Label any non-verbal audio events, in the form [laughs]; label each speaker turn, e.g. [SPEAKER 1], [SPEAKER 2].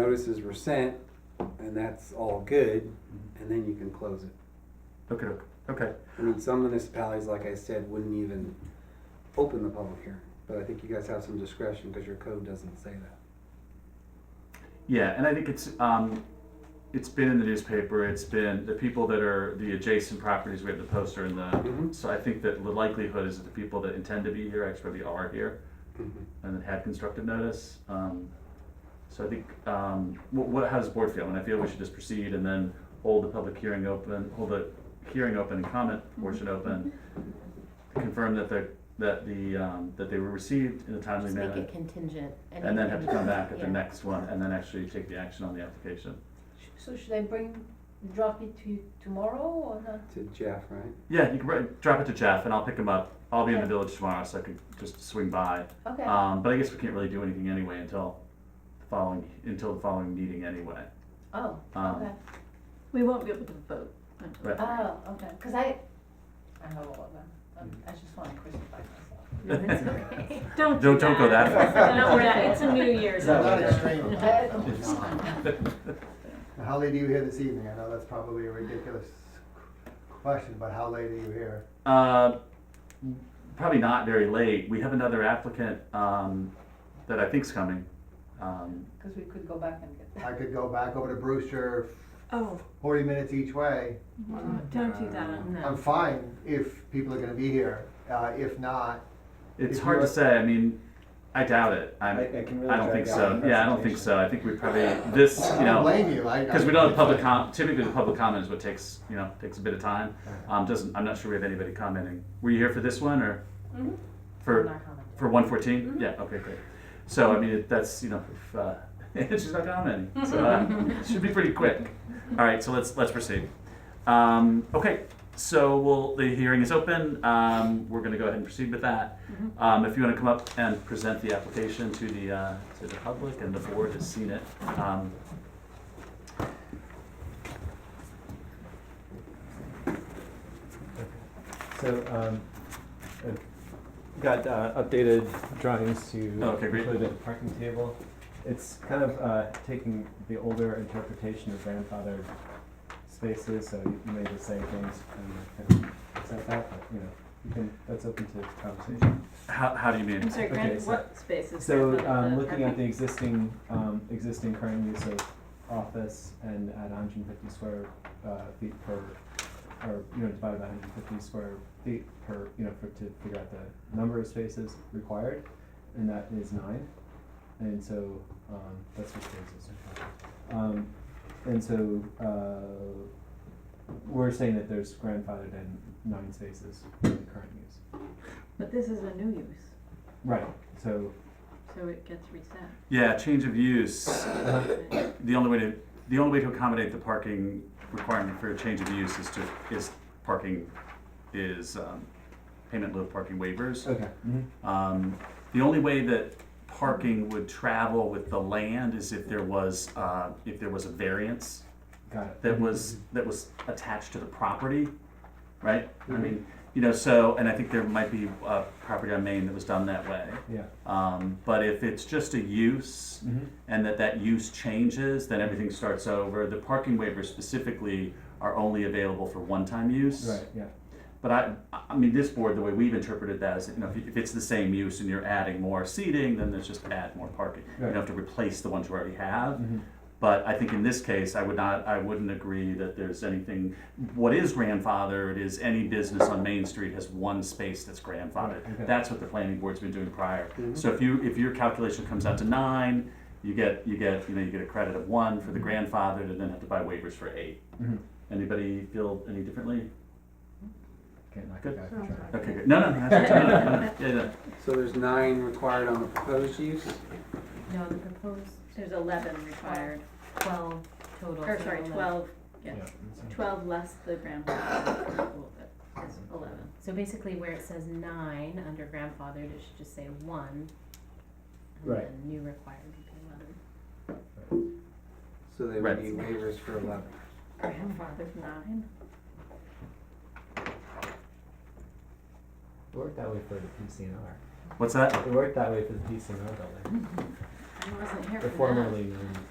[SPEAKER 1] notices were sent, and that's all good, and then you can close it.
[SPEAKER 2] Okay, okay,
[SPEAKER 1] I mean, some municipalities, like I said, wouldn't even open the public hearing, but I think you guys have some discretion, because your code doesn't say that.
[SPEAKER 2] yeah, and I think it's, um, it's been in the newspaper, it's been, the people that are, the adjacent properties, we have the poster and the,
[SPEAKER 1] Mhm.
[SPEAKER 2] so I think that the likelihood is that the people that intend to be here actually are here. and then had constructive notice. Um, so I think, um, what, what, how does the board feel? And I feel we should just proceed and then hold the public hearing open, hold the hearing open and comment portion open. Confirm that the, that the, um, that they were received in a timely
[SPEAKER 3] Just make
[SPEAKER 2] manner.
[SPEAKER 3] it contingent.
[SPEAKER 2] uh, And then have to come back at the
[SPEAKER 3] Yeah.
[SPEAKER 2] next one and then actually take the action on the application.
[SPEAKER 4] So should I bring, drop it to you tomorrow or not?
[SPEAKER 1] To Jeff, right?
[SPEAKER 2] Yeah, you can write- drop it to Jeff and I'll pick him up. I'll be in the
[SPEAKER 4] Okay.
[SPEAKER 2] village tomorrow, so I could just swing by.
[SPEAKER 4] Okay,
[SPEAKER 2] Um, but I guess we can't really do anything anyway until the following, until the following meeting
[SPEAKER 4] [laughs]
[SPEAKER 2] anyway.
[SPEAKER 4] oh,
[SPEAKER 2] um,
[SPEAKER 4] okay,
[SPEAKER 5] We won't be able to vote. until-
[SPEAKER 2] Right.
[SPEAKER 4] oh, okay, cause I, I know all of them, Um, I just wanna crucify myself.
[SPEAKER 3] [laughs] No, that's okay.
[SPEAKER 5] [laughs] Don't
[SPEAKER 2] Don't- don't go that
[SPEAKER 4] far.
[SPEAKER 5] Don't worry, it's a New Year's.
[SPEAKER 6] Is that not
[SPEAKER 5] order.
[SPEAKER 6] extreme?
[SPEAKER 4] Uh,
[SPEAKER 6] How late are you here this evening? I know that's probably a ridiculous question, but how late are you here?
[SPEAKER 2] Uh, probably not very late. We have another applicant um, that I think's coming. Um,
[SPEAKER 4] [laughs] Cause we could go back and get that.
[SPEAKER 6] I could go back over to Brewster
[SPEAKER 5] [laughs] Oh,
[SPEAKER 6] forty minutes each way.
[SPEAKER 5] don't do that.
[SPEAKER 6] I'm
[SPEAKER 3] No.
[SPEAKER 6] fine if people are gonna be here. Uh, if not,
[SPEAKER 2] it's
[SPEAKER 6] If
[SPEAKER 2] hard to
[SPEAKER 6] you're-
[SPEAKER 2] say. I mean, I doubt it. I'm, I,
[SPEAKER 7] I- I can really
[SPEAKER 2] don't
[SPEAKER 7] drag
[SPEAKER 2] think
[SPEAKER 7] out
[SPEAKER 2] so.
[SPEAKER 7] the
[SPEAKER 2] Yeah, I don't think so. I think we probably this,
[SPEAKER 6] I
[SPEAKER 2] you
[SPEAKER 7] [laughs]
[SPEAKER 6] don't
[SPEAKER 2] know,
[SPEAKER 6] blame you. I.
[SPEAKER 2] because we don't have public com. Typically, the public comment is what takes you know takes a bit of time. Um, doesn't I'm not sure we have anybody commenting. Were you here for this one or
[SPEAKER 4] Mhm.
[SPEAKER 2] for
[SPEAKER 4] I'm not commenting.
[SPEAKER 2] For one Yeah. Okay. Great. So I mean, it, that's you know, if, uh, [laughs] she's not commenting, so uh, it should be pretty quick. All right. So let's let's proceed. Um, okay. So we'll, the hearing is open. Um, we're going to go ahead and proceed with that. Um, if you want to come up and present the application to the uh, to the public and the board has seen it. Um,
[SPEAKER 7] So, um, I've got uh, updated drawings to
[SPEAKER 2] Oh, Okay, great.
[SPEAKER 7] include the parking table. It's kind of uh, taking the older interpretation of grandfathered spaces, so you you may just say things and kind of accept that, but you know, you can, that's open to conversation.
[SPEAKER 2] how, how do you
[SPEAKER 5] I'm
[SPEAKER 2] mean?
[SPEAKER 5] sorry,
[SPEAKER 7] Okay,
[SPEAKER 5] Grant,
[SPEAKER 7] so-
[SPEAKER 5] what space is
[SPEAKER 7] So,
[SPEAKER 5] that? uh,
[SPEAKER 7] um, looking at the existing, um, existing current use of office and at hundred and fifty square, uh, feet per, or, you know, divided by hundred and fifty square feet per, you know, for, to figure out the number of spaces required, and that is nine. And so, um, that's what the existing current. Um, and so, uh, we're saying that there's grandfathered in nine spaces in the current use.
[SPEAKER 5] But this is a new use,
[SPEAKER 7] Right, so,
[SPEAKER 5] so it
[SPEAKER 2] [coughs]
[SPEAKER 5] gets reset.
[SPEAKER 2] Yeah. Change of use.
[SPEAKER 5] Right.
[SPEAKER 2] The only way to the only way to accommodate the parking requirement for a change of use is to is parking is um, payment load parking waivers.
[SPEAKER 7] okay, mhm.
[SPEAKER 2] Um, the only way that parking would travel with the land is if there was uh, if there was a variance
[SPEAKER 7] got it.
[SPEAKER 2] that was that was attached to the property, right? I mean, you know, so and I think there might be a property on Maine that was done that way.
[SPEAKER 7] Yeah.
[SPEAKER 2] Um, but if it's just a use
[SPEAKER 7] Mhm.
[SPEAKER 2] and that that use changes, then everything starts over. The parking waivers specifically are only available for one-time use.
[SPEAKER 7] Right, yeah.
[SPEAKER 2] But I, I mean, this board, the way we've interpreted that is, you know, if, if it's the same use and you're adding more seating, then there's just add more parking. You don't
[SPEAKER 7] Right. Mm-hmm.
[SPEAKER 2] have to replace the ones you already have. But I think in this case, I would not, I wouldn't agree that there's anything, what is grandfathered is any business on Main Street has one space that's grandfathered.
[SPEAKER 7] Right, okay.
[SPEAKER 2] That's what the planning board's been doing prior. So if you, if your calculation comes out to nine, you get, you get, you know, you get a credit of one for the
[SPEAKER 7] Mm-hmm.
[SPEAKER 2] grandfathered and then have to buy waivers for eight.
[SPEAKER 7] Mhm.
[SPEAKER 2] Anybody feel any differently?
[SPEAKER 7] Can't knock
[SPEAKER 2] Good.
[SPEAKER 7] it back for sure.
[SPEAKER 2] Okay, good. No, no, no, that's- no, no, no, yeah, yeah.
[SPEAKER 1] So there's nine required on the proposed use,
[SPEAKER 3] No, the proposed
[SPEAKER 5] There's eleven required,
[SPEAKER 3] twelve total.
[SPEAKER 5] or
[SPEAKER 3] so
[SPEAKER 5] sorry,
[SPEAKER 3] only-
[SPEAKER 5] twelve, yeah,
[SPEAKER 7] that's-
[SPEAKER 5] twelve less the grandfather,
[SPEAKER 3] [coughs]
[SPEAKER 5] that is eleven.
[SPEAKER 3] So basically where it says nine under grandfathered, it should just say one.
[SPEAKER 7] Right.
[SPEAKER 3] And then new required would be eleven.
[SPEAKER 1] so they
[SPEAKER 2] Right.
[SPEAKER 1] would need waivers for eleven.
[SPEAKER 5] Grandfathered nine?
[SPEAKER 6] It worked that way for the PCNR.
[SPEAKER 2] What's that?
[SPEAKER 5] Mm,
[SPEAKER 6] It worked that way for the PCNR building.
[SPEAKER 5] I wasn't here
[SPEAKER 6] They're
[SPEAKER 5] for that.
[SPEAKER 6] known